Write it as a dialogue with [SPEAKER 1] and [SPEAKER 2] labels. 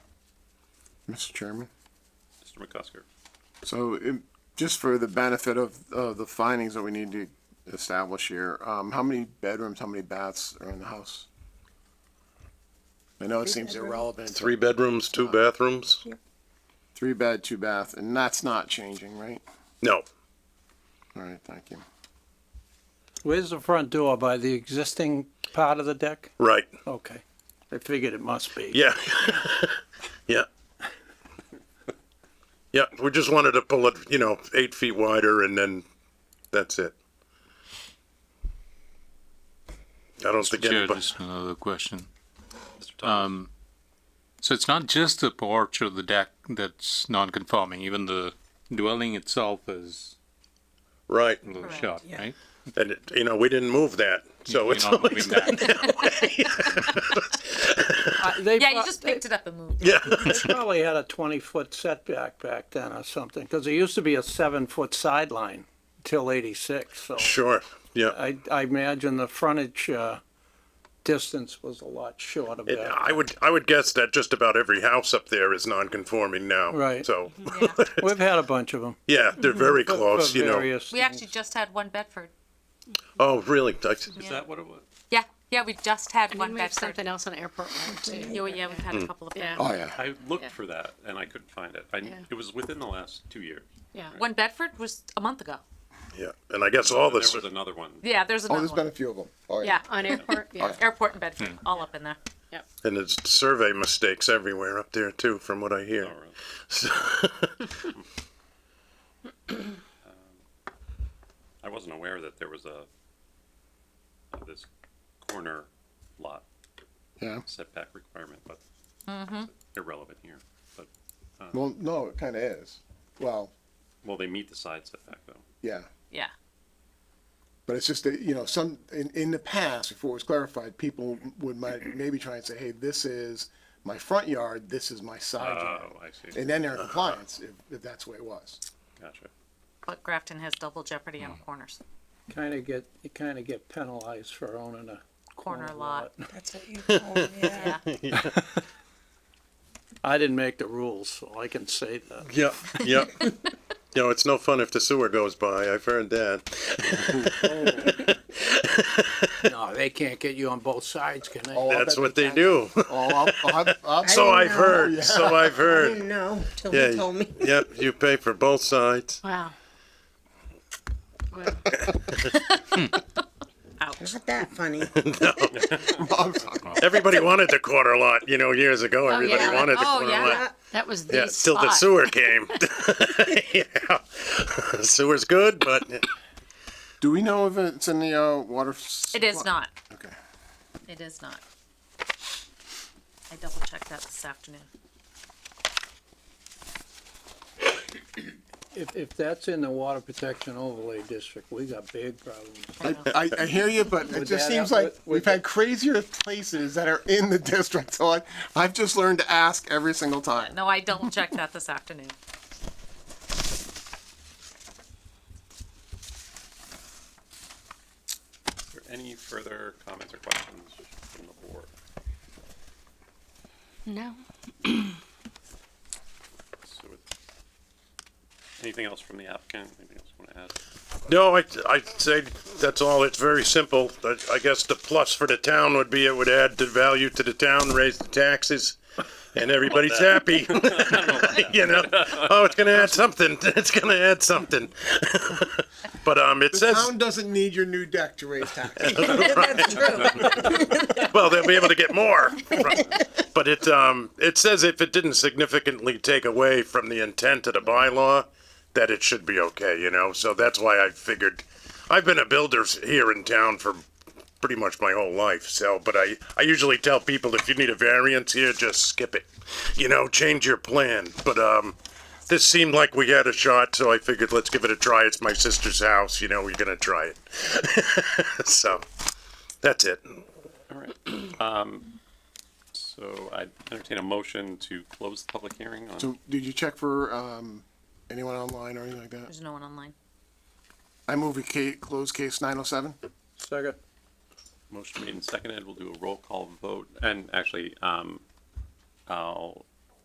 [SPEAKER 1] Mr. Chairman.
[SPEAKER 2] Mr. McCusker.
[SPEAKER 1] So, it- just for the benefit of, of the findings that we need to establish here, um, how many bedrooms, how many baths are in the house? I know it seems
[SPEAKER 3] bedrooms.
[SPEAKER 1] irrelevant. but
[SPEAKER 4] Three bedrooms, two
[SPEAKER 5] Oh.
[SPEAKER 4] bathrooms?
[SPEAKER 1] Three bed, two bath, and that's not changing, right?
[SPEAKER 4] No.
[SPEAKER 1] All right, thank you.
[SPEAKER 5] Where's the front door by the existing part of the deck?
[SPEAKER 4] Right.
[SPEAKER 5] Okay, I figured it must be.
[SPEAKER 4] Yeah. yeah. Yeah. We just wanted to pull it, you know, eight feet wider and then that's it. I don't think
[SPEAKER 6] Chair,
[SPEAKER 4] anybody.
[SPEAKER 6] just another question.
[SPEAKER 2] Mr. Thomas.
[SPEAKER 6] Um, so it's not just the porch or the deck that's non-conforming, even the dwelling itself is
[SPEAKER 4] Right.
[SPEAKER 6] a little
[SPEAKER 3] Correct,
[SPEAKER 6] short,
[SPEAKER 3] yeah.
[SPEAKER 6] right?
[SPEAKER 4] And, it, you know, we didn't move that. So
[SPEAKER 6] You're
[SPEAKER 4] it's
[SPEAKER 6] not
[SPEAKER 4] always
[SPEAKER 6] moving
[SPEAKER 4] done that way.
[SPEAKER 5] Uh, They
[SPEAKER 3] Yeah, you
[SPEAKER 5] pro-
[SPEAKER 3] just picked it up and moved.
[SPEAKER 4] yeah.
[SPEAKER 5] they probably had a twenty-foot setback back then or something, because there used to be a seven-foot sideline till eighty-six, so
[SPEAKER 4] Sure. Yeah.
[SPEAKER 5] I, I imagine the frontage, uh, distance was a lot short of
[SPEAKER 4] It,
[SPEAKER 5] that.
[SPEAKER 4] I would I would guess that just about every house up there is non-conforming now.
[SPEAKER 5] Right.
[SPEAKER 4] So
[SPEAKER 3] Yeah.
[SPEAKER 5] We've had a bunch of them.
[SPEAKER 4] yeah, they're very close. You know.
[SPEAKER 5] various
[SPEAKER 3] We actually just had one Bedford.
[SPEAKER 4] Oh, really? I-
[SPEAKER 2] Is that what it was?
[SPEAKER 3] Yeah, yeah, we just had
[SPEAKER 7] And
[SPEAKER 3] one
[SPEAKER 7] we have
[SPEAKER 3] Bedford.
[SPEAKER 7] something else on airport road too.
[SPEAKER 3] Yeah, we- yeah, we've had a couple of them.
[SPEAKER 7] Yeah.
[SPEAKER 1] Oh, yeah.
[SPEAKER 2] I looked
[SPEAKER 7] Yeah.
[SPEAKER 2] for that and I couldn't find it. I,
[SPEAKER 7] Yeah.
[SPEAKER 2] It was within the last two years.
[SPEAKER 7] Yeah.
[SPEAKER 3] One Bedford was a month ago.
[SPEAKER 4] Yeah, and I guess all
[SPEAKER 2] there
[SPEAKER 4] this.
[SPEAKER 2] was another one.
[SPEAKER 3] Yeah, there's
[SPEAKER 1] Oh,
[SPEAKER 3] another
[SPEAKER 1] there's been a
[SPEAKER 3] one.
[SPEAKER 1] few of them. Oh,
[SPEAKER 3] Yeah,
[SPEAKER 7] On airport, yeah.
[SPEAKER 3] airport and Bedford, all up in there.
[SPEAKER 4] And it's survey mistakes everywhere up there too, from what I hear.
[SPEAKER 2] Oh, really? Um, I wasn't aware that there was a, uh, this corner lot
[SPEAKER 1] Yeah.
[SPEAKER 2] setback requirement, but
[SPEAKER 7] Mm-hmm.
[SPEAKER 2] it's irrelevant here. But,
[SPEAKER 1] Well, no, it kind of is. Well,
[SPEAKER 2] well, they meet the side setback though.
[SPEAKER 1] yeah.
[SPEAKER 3] Yeah.
[SPEAKER 1] But it's just that, you know, some, in, in the past, before it was clarified, people would might maybe try and say, hey, this is my front yard, this is my side yard.
[SPEAKER 2] Oh, I see.
[SPEAKER 1] And then
[SPEAKER 5] Uh-huh.
[SPEAKER 1] they're in compliance, if, if that's the way it was.
[SPEAKER 2] Gotcha.
[SPEAKER 3] But Grafton has double jeopardy on corners,
[SPEAKER 5] Kinda get, you kinda get penalized for owning a
[SPEAKER 3] corner lot.
[SPEAKER 7] That's what you call it, yeah.
[SPEAKER 5] I didn't make the rules, so I can say that.
[SPEAKER 4] Yeah, yeah. you know, it's no fun if the sewer goes by. I've heard that.
[SPEAKER 5] No, they can't get you on both sides, can they?
[SPEAKER 1] Oh, I
[SPEAKER 4] That's
[SPEAKER 1] bet
[SPEAKER 4] what they do.
[SPEAKER 1] Oh, I'll, I'll, have- I'll,
[SPEAKER 4] so
[SPEAKER 8] didn't
[SPEAKER 4] I've
[SPEAKER 8] know.
[SPEAKER 4] heard.
[SPEAKER 1] Yeah.
[SPEAKER 4] So I've
[SPEAKER 8] I
[SPEAKER 4] heard.
[SPEAKER 8] didn't know till
[SPEAKER 4] Yeah.
[SPEAKER 8] he told me.
[SPEAKER 4] Yep, you pay for both sides.
[SPEAKER 7] Wow. Well,
[SPEAKER 8] Not that funny.
[SPEAKER 4] Everybody wanted the quarter lot. You know, years ago, everybody
[SPEAKER 7] yeah.
[SPEAKER 4] wanted the
[SPEAKER 3] Oh,
[SPEAKER 4] corner
[SPEAKER 3] yeah.
[SPEAKER 4] lot.
[SPEAKER 7] That was the
[SPEAKER 4] Yeah, till the
[SPEAKER 7] spot.
[SPEAKER 4] sewer came. yeah. Sewer's good, but
[SPEAKER 1] do we know if it's in the, uh, water? s-
[SPEAKER 3] It is not.
[SPEAKER 1] Okay.
[SPEAKER 3] It is not. I double checked that this afternoon.
[SPEAKER 5] If, if that's in the water protection overlay district, we got big problems.
[SPEAKER 1] I, I, I hear you, but it
[SPEAKER 5] Would
[SPEAKER 1] just
[SPEAKER 5] that
[SPEAKER 1] seems
[SPEAKER 5] help
[SPEAKER 1] like
[SPEAKER 5] with- with
[SPEAKER 1] we've
[SPEAKER 5] the-
[SPEAKER 1] had crazier places that are in the district, so I, I've just learned to ask every single time.
[SPEAKER 3] No, I double checked that this afternoon.
[SPEAKER 2] Is there any further comments or questions from the board?
[SPEAKER 7] No.
[SPEAKER 2] So it- Anything else from the applicant? Anything else you want to add?
[SPEAKER 4] No, I, I'd say that's all. It's very simple. I, I guess the plus for the town would be it would add the value to the town, raise the taxes, and everybody's happy. You know, oh, it's gonna add something. It's gonna add something. But, um, it says,
[SPEAKER 1] Town doesn't need your new deck to raise taxes.
[SPEAKER 8] That's true.
[SPEAKER 4] well, they'll be able to get more. But it, um, it says if it didn't significantly take away from the intent of the bylaw, that it should be okay, you know? So that's why I figured, I've been a builder s- here in town for pretty much my whole life, so, but I, I usually tell people if you need a variance here, just skip it. You know, change your plan, but, um, this seemed like we had a shot, so I figured let's give it a try. It's my sister's house, you know, we're gonna try it. So, that's it.
[SPEAKER 2] All right. Um, So I entertain a motion to close the public hearing on.
[SPEAKER 1] So, did you check for, um, anyone online or anything like that?
[SPEAKER 3] There's no one online.
[SPEAKER 1] I move we ca- close case nine oh seven.
[SPEAKER 5] Second,
[SPEAKER 2] Motion made and seconded. We'll do a roll call vote. And actually, um, I'll